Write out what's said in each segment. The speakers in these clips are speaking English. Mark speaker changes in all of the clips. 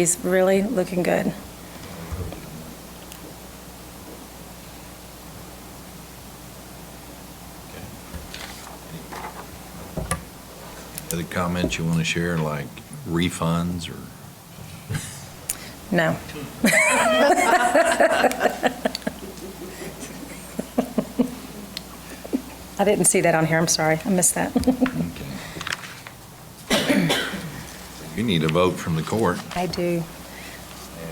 Speaker 1: He's really looking good.
Speaker 2: Other comments you want to share, like refunds or?
Speaker 1: No. I didn't see that on here, I'm sorry, I missed that.
Speaker 2: okay. You need a vote from the court
Speaker 1: I do.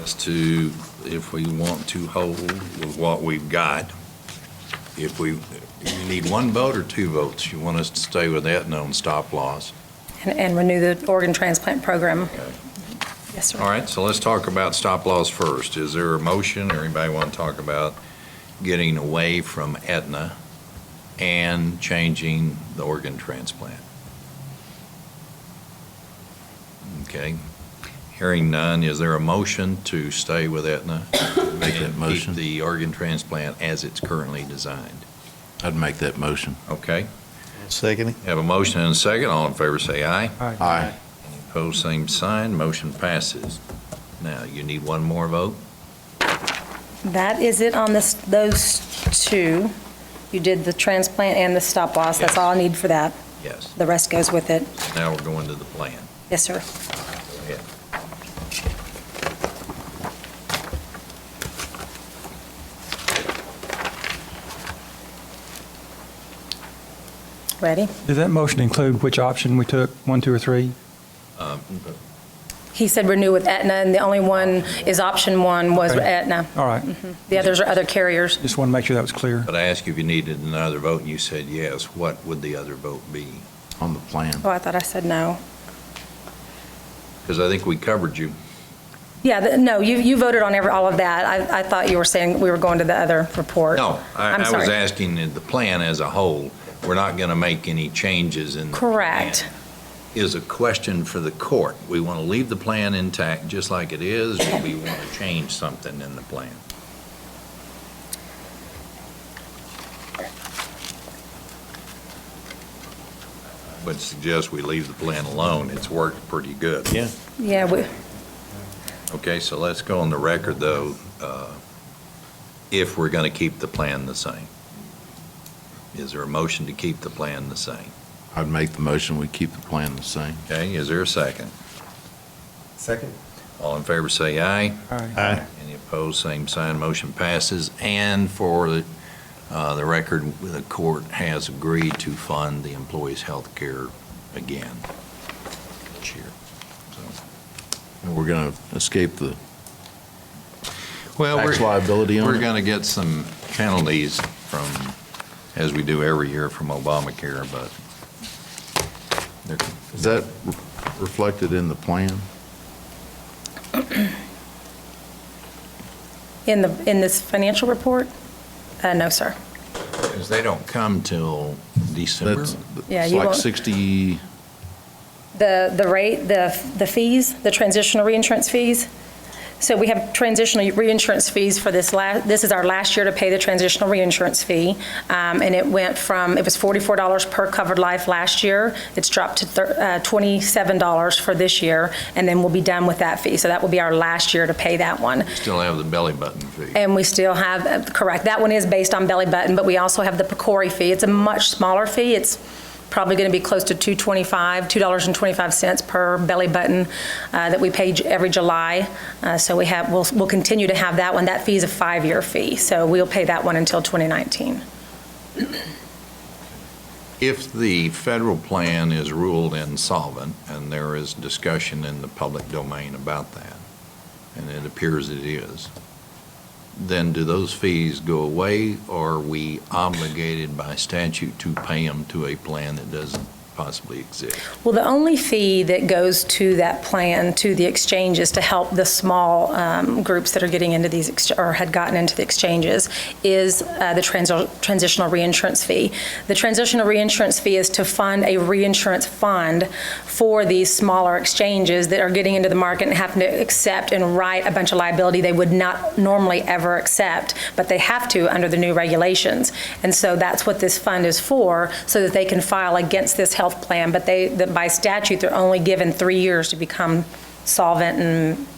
Speaker 2: as to if we want to hold with what we've got. If we, you need one vote or two votes? You want us to stay with that known stop loss?
Speaker 1: And- And renew the organ transplant program.
Speaker 2: Okay.
Speaker 1: Yes, sir.
Speaker 2: All right, so let's talk about stop loss first. Is there a motion, or anybody want to talk about getting away from Aetna and changing the organ transplant? Okay, hearing none, is there a motion to stay with Aetna?
Speaker 3: Make that motion.
Speaker 2: And keep the organ transplant as it's currently designed?
Speaker 3: I'd make that motion.
Speaker 2: Okay,
Speaker 4: Second.
Speaker 2: have a motion and a second, all in favor say aye.
Speaker 3: Aye.
Speaker 2: Opposed, same sign, motion passes. Now, you need one more vote?
Speaker 1: That is it on this, those two. You did the transplant and the stop loss, that's all I need for that.
Speaker 2: Yes.
Speaker 1: The rest goes with it.
Speaker 2: Now we're going to the plan.
Speaker 1: Yes, sir.
Speaker 2: Go ahead.
Speaker 1: Ready?
Speaker 5: Does that motion include which option we took, one, two, or three?
Speaker 2: Um,
Speaker 1: He said renew with Aetna, and the only one is option one was
Speaker 5: Okay.
Speaker 1: Aetna.
Speaker 5: All right,
Speaker 1: The others are other carriers.
Speaker 5: just want to make sure that was clear.
Speaker 2: But I asked you if you needed another vote, and you said yes. What would the other vote be?
Speaker 3: On the plan.
Speaker 1: Oh, I thought I said no.
Speaker 2: Because I think we covered you.
Speaker 1: Yeah, the- no, you, you voted on every, all of that. I, I thought you were saying we were going to the other report.
Speaker 2: No, I
Speaker 1: I'm
Speaker 2: I was
Speaker 1: sorry.
Speaker 2: asking in the plan as a whole. We're not going to make any changes in. the
Speaker 1: Correct.
Speaker 2: plan. Is a question for the court. We want to leave the plan intact just like it is, or we want to change something in the plan? I would suggest we leave the plan alone. It's worked pretty good.
Speaker 4: Yeah.
Speaker 1: Yeah, we,
Speaker 2: Okay, so let's go on the record, though, uh, if we're going to keep the plan the same. Is there a motion to keep the plan the same?
Speaker 3: I'd make the motion, we keep the plan the same.
Speaker 2: Okay, is there a second?
Speaker 4: Second.
Speaker 2: All in favor, say aye.
Speaker 5: All right.
Speaker 4: Aye.
Speaker 2: Any opposed, same sign, motion passes. And for the uh, the record, the court has agreed to fund the employees' health care again this year. So-
Speaker 3: And we're going to escape the
Speaker 2: Well, we're-
Speaker 3: tax liability on
Speaker 2: We're
Speaker 3: it.
Speaker 2: going to get some penalties from, as we do every year from Obamacare, but they're-
Speaker 3: Is that re- reflected in the plan?
Speaker 1: in the, in this financial report? Uh, no, sir.
Speaker 2: because they don't come till December.
Speaker 3: That's,
Speaker 1: Yeah,
Speaker 3: it's
Speaker 1: you
Speaker 3: like
Speaker 1: won't-
Speaker 3: 60,
Speaker 1: The, the rate, the, the fees, the transitional reinsurance fees. So we have transitional reinsurance fees for this last, this is our last year to pay the transitional reinsurance fee. Um, and it went from, it was forty-four dollars per covered life last year. It's dropped to thir- uh, twenty-seven dollars for this year, and then we'll be done with that fee. So that will be our last year to pay that one.
Speaker 2: Still have the belly button fee.
Speaker 1: And we still have, uh, correct, that one is based on belly button, but we also have the PCORI fee. It's a much smaller fee. It's probably going to be close to $2.25, $2.25 per belly button uh, that we pay j- every July. Uh, So we have, we'll, we'll continue to have that one. That fee is a five-year fee, so we'll pay that one until 2019.
Speaker 2: If the federal plan is ruled insolvent, and there is discussion in the public domain about that, and it appears it is, then do those fees go away, or are we obligated by statute to pay them to a plan that doesn't possibly exist?
Speaker 1: Well, the only fee that goes to that plan, to the exchange, is to help the small um, groups that are getting into these, ex- or had gotten into the exchanges, is uh, the transi- transitional reinsurance fee. The transitional reinsurance fee is to fund a reinsurance fund for these smaller exchanges that are getting into the market and happen to accept and write a bunch of liability they would not normally ever accept, but they have to under the new regulations. And so that's what this fund is for, so that they can file against this health plan. But they, that by statute, they're only given three years to become solvent and